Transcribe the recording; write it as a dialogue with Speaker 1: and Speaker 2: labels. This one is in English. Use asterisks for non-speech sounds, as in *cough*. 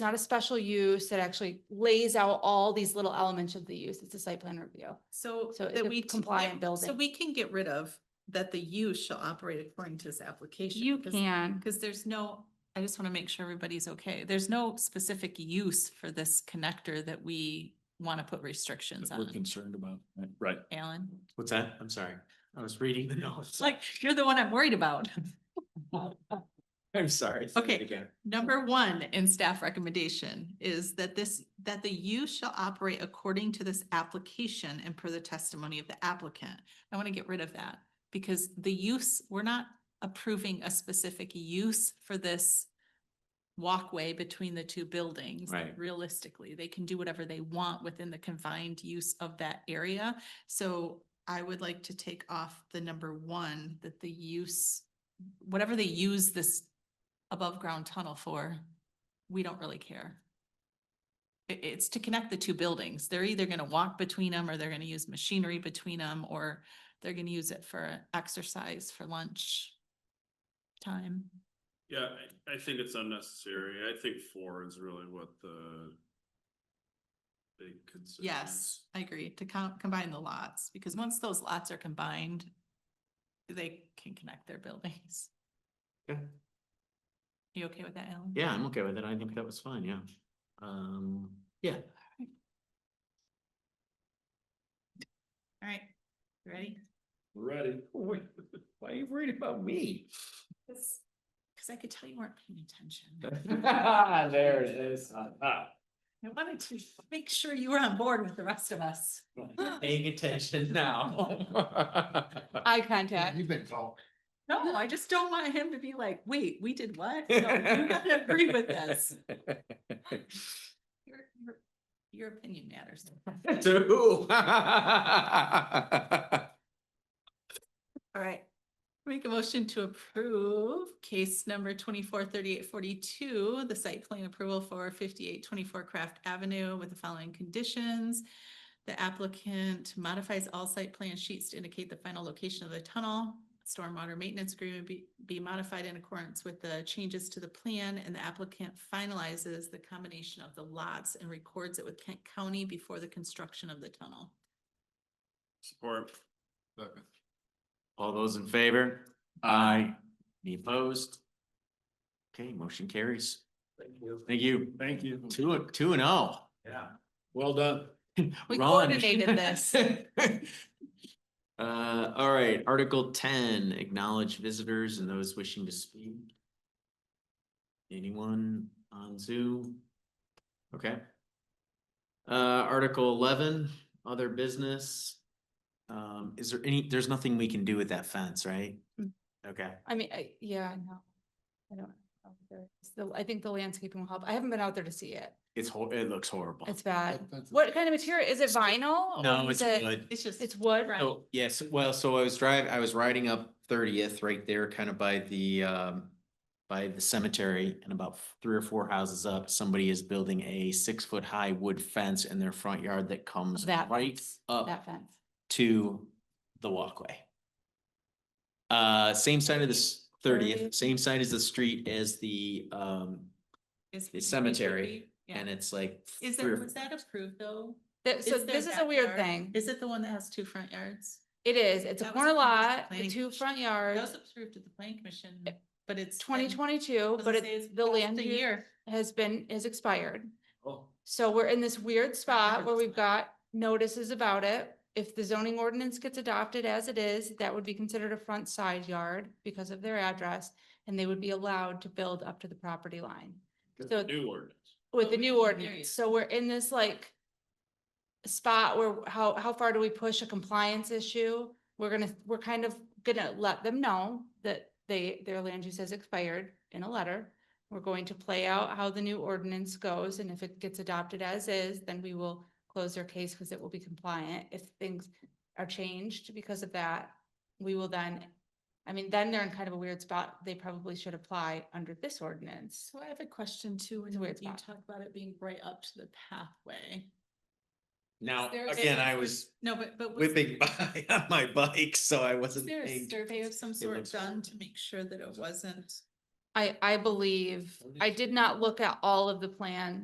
Speaker 1: not a special use. It actually lays out all these little elements of the use. It's a site plan review.
Speaker 2: So
Speaker 1: So it's
Speaker 2: that
Speaker 1: a
Speaker 2: we. t-
Speaker 1: compliant
Speaker 2: yeah, So
Speaker 1: building.
Speaker 2: we can get rid of that the use shall operate according to this application.
Speaker 1: You
Speaker 2: because-
Speaker 1: can.
Speaker 2: Because there's no, I just want to make sure everybody's okay. There's no specific use for this connector that we want to put restrictions
Speaker 3: that we're
Speaker 2: on.
Speaker 3: concerned about, right? right?
Speaker 2: Alan,
Speaker 4: What's that? I'm sorry. I
Speaker 3: *laughs*
Speaker 4: was reading the notes.
Speaker 2: it's like, you're the one I'm worried about.
Speaker 4: *laughs* I'm sorry. Say that
Speaker 2: Okay.
Speaker 4: Again.
Speaker 2: Number one in staff recommendation is that this, that the use shall operate according to this application and per the testimony of the applicant. I want to get rid of that because the use, we're not approving a specific use for this walkway between the two buildings.
Speaker 4: Right.
Speaker 2: Realistically, they can do whatever they want within the confined use of that area. So I would like to take off the number one, that the use, whatever they use this above ground tunnel for, we don't really care. I- it's to connect the two buildings. They're either gonna walk between them or they're gonna use machinery between them or they're gonna use it for exercise, for lunch time.
Speaker 5: Yeah, I, I think it's unnecessary. I think four is really what the big concern
Speaker 2: Yes,
Speaker 5: is.
Speaker 2: I agree, to count, combine the lots, because once those lots are combined, they can connect their buildings.
Speaker 4: Okay.
Speaker 2: You okay with that, Alan?
Speaker 4: Yeah, I'm okay with it. I think that was fine, yeah. Um, yeah,
Speaker 2: All right, you ready?
Speaker 5: We're Ready?
Speaker 4: *laughs* Why are you worried about me?
Speaker 2: Cause 'cause I could tell you weren't paying attention.
Speaker 4: *laughs* *laughs* There it is.
Speaker 3: *laughs*
Speaker 4: Ah,
Speaker 2: I wanted to make sure you were on board with the rest of us.
Speaker 4: ah. Paying attention now.
Speaker 1: Eye contact.
Speaker 6: You've been told.
Speaker 2: No, I just don't want him to be like, wait, we did what? No, You gotta agree with
Speaker 4: *laughs*
Speaker 2: us. Your, your, your opinion matters.
Speaker 4: *laughs* To who? *laughs*
Speaker 2: All right. Make a motion to approve case number twenty-four thirty-eight forty-two, the site plan approval for fifty-eight twenty-four Craft Avenue with the following conditions. The applicant modifies all site plan sheets to indicate the final location of the tunnel. Stormwater maintenance agreement be, be modified in accordance with the changes to the plan and the applicant finalizes the combination of the lots and records it with Kent County before the construction of the tunnel.
Speaker 5: Support.
Speaker 6: Second.
Speaker 4: All those in favor? Aye. Any opposed? Okay, motion carries.
Speaker 6: Thank you.
Speaker 4: Thank you.
Speaker 5: Thank you.
Speaker 4: Two, two and oh.
Speaker 6: Yeah.
Speaker 4: *laughs*
Speaker 5: Well done.
Speaker 2: We
Speaker 4: Run.
Speaker 2: coordinated this.
Speaker 4: *laughs* Uh, all right, Article ten, acknowledge visitors and those wishing to speak. Anyone on Zoom? Okay. Uh, Article eleven, other business. Um, is there any, there's nothing we can do with that fence, right?
Speaker 1: Mm.
Speaker 4: Okay.
Speaker 1: I mean, I, yeah, no. I don't. know if there is. The- I think the landscaping will help. I haven't been out there to see it.
Speaker 4: It's hor- it looks horrible.
Speaker 1: It's bad.
Speaker 6: That- that's-
Speaker 1: What kind of material? Is it vinyl? or
Speaker 4: No,
Speaker 1: is
Speaker 4: it's
Speaker 1: it-
Speaker 4: wood.
Speaker 2: It's just.
Speaker 1: It's wood?
Speaker 4: Oh, yes, well, so I was driving, I was riding up thirtieth right there, kind of by the um. By the cemetery and about three or four houses up, somebody is building a six foot high wood fence in their front yard that comes
Speaker 1: That
Speaker 4: right
Speaker 1: fence,
Speaker 4: up
Speaker 1: That fence.
Speaker 4: to the walkway. Uh, same side of this thirtieth,
Speaker 1: 30th.
Speaker 4: same side as the street as the um,
Speaker 2: Is
Speaker 4: the
Speaker 2: we- we should
Speaker 4: cemetery,
Speaker 2: be- yeah.
Speaker 4: and it's like.
Speaker 2: Is
Speaker 4: three
Speaker 2: there,
Speaker 4: or-
Speaker 2: was that approved though?
Speaker 1: That- so
Speaker 2: Is there
Speaker 1: this is a weird
Speaker 2: backyard?
Speaker 1: thing.
Speaker 2: Is it the one that has two front yards?
Speaker 1: It is. It's a
Speaker 2: That was
Speaker 1: corner
Speaker 2: approved at the
Speaker 1: lot, the
Speaker 2: planning
Speaker 1: two
Speaker 2: commission.
Speaker 1: front
Speaker 2: That
Speaker 1: yards,
Speaker 2: was approved at the planning commission, but it's. been-
Speaker 1: twenty twenty-two,
Speaker 2: does
Speaker 1: but
Speaker 2: it
Speaker 1: it-
Speaker 2: say it's
Speaker 1: the
Speaker 2: past
Speaker 1: land
Speaker 2: a
Speaker 1: use
Speaker 2: year?
Speaker 1: has been, is expired.
Speaker 4: Oh.
Speaker 1: So we're in this weird spot
Speaker 2: heard
Speaker 1: where
Speaker 2: this
Speaker 1: we've
Speaker 2: one.
Speaker 1: got notices about it. If the zoning ordinance gets adopted as it is, that would be considered a front side yard because of their address. And they would be allowed to build up to the property line So-
Speaker 5: New ordinance.
Speaker 1: with the new
Speaker 2: we can hear you.
Speaker 1: ordinance. So we're in this like spot where how, how far do we push a compliance issue? We're gonna, we're kind of gonna let them know that they, their land use has expired in a letter. We're going to play out how the new ordinance goes and if it gets adopted as is, then we will close their case because it will be compliant. If things are changed because of that, we will then, I mean, then they're in kind of a weird spot. They probably should apply under this ordinance.
Speaker 2: So I have a question too, when
Speaker 1: It's a
Speaker 2: you
Speaker 1: weird spot.
Speaker 2: talk about it being right up to the pathway.
Speaker 4: Now,
Speaker 2: Is there a
Speaker 4: again, I
Speaker 2: survey-
Speaker 4: was
Speaker 2: No, but, but. was-
Speaker 4: whipping *laughs* by on my bike, so I
Speaker 2: Was
Speaker 4: wasn't.
Speaker 2: there a
Speaker 4: paying
Speaker 2: survey of some
Speaker 4: looks
Speaker 2: sort done
Speaker 4: horrible.
Speaker 2: to make sure that it wasn't
Speaker 1: I, I believe, I did not look at all of the plan